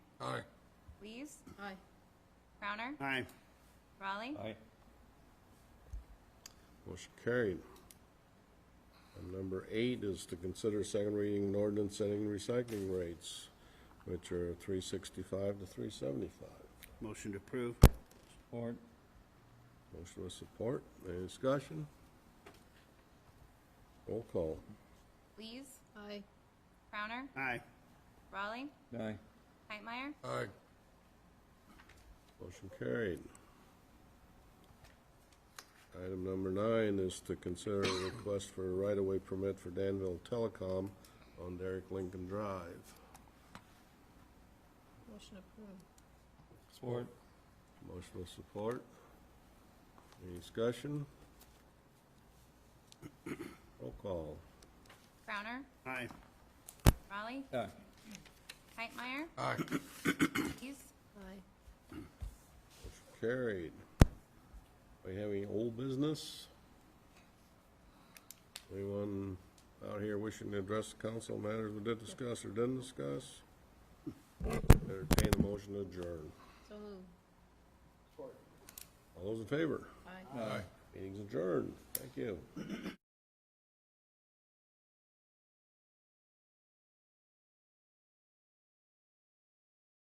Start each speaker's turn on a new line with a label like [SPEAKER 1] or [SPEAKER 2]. [SPEAKER 1] Lees,
[SPEAKER 2] Aye.
[SPEAKER 1] Crowner,
[SPEAKER 3] Aye.
[SPEAKER 1] Raleigh,
[SPEAKER 4] Aye.
[SPEAKER 5] Motion carried. And number eight is to consider second reading an ordinance setting recycling rates, which are three sixty-five to three seventy-five.
[SPEAKER 3] Motion to approve.
[SPEAKER 4] Or
[SPEAKER 5] Motion with support. Any discussion? Roll call.
[SPEAKER 1] Lees,
[SPEAKER 2] Aye.
[SPEAKER 1] Crowner,
[SPEAKER 3] Aye.
[SPEAKER 1] Raleigh,
[SPEAKER 4] Aye.
[SPEAKER 1] Hightmeyer,
[SPEAKER 5] Aye. Motion carried. Item number nine is to consider a request for a right-of-way permit for Danville Telecom on Derek Lincoln Drive.
[SPEAKER 2] Motion approved.
[SPEAKER 4] Support.
[SPEAKER 5] Motion with support. Any discussion? Roll call.
[SPEAKER 1] Crowner,
[SPEAKER 3] Aye.
[SPEAKER 1] Raleigh,
[SPEAKER 4] Aye.
[SPEAKER 1] Hightmeyer,
[SPEAKER 5] Aye.
[SPEAKER 1] Lees,
[SPEAKER 2] Aye.
[SPEAKER 5] Motion carried. We have any old business? Anyone out here wishing to address the council on matters we did discuss or didn't discuss? Entertain the motion to adjourn.
[SPEAKER 2] So moved.
[SPEAKER 5] All those in favor?
[SPEAKER 2] Aye.
[SPEAKER 5] Meeting's adjourned. Thank you.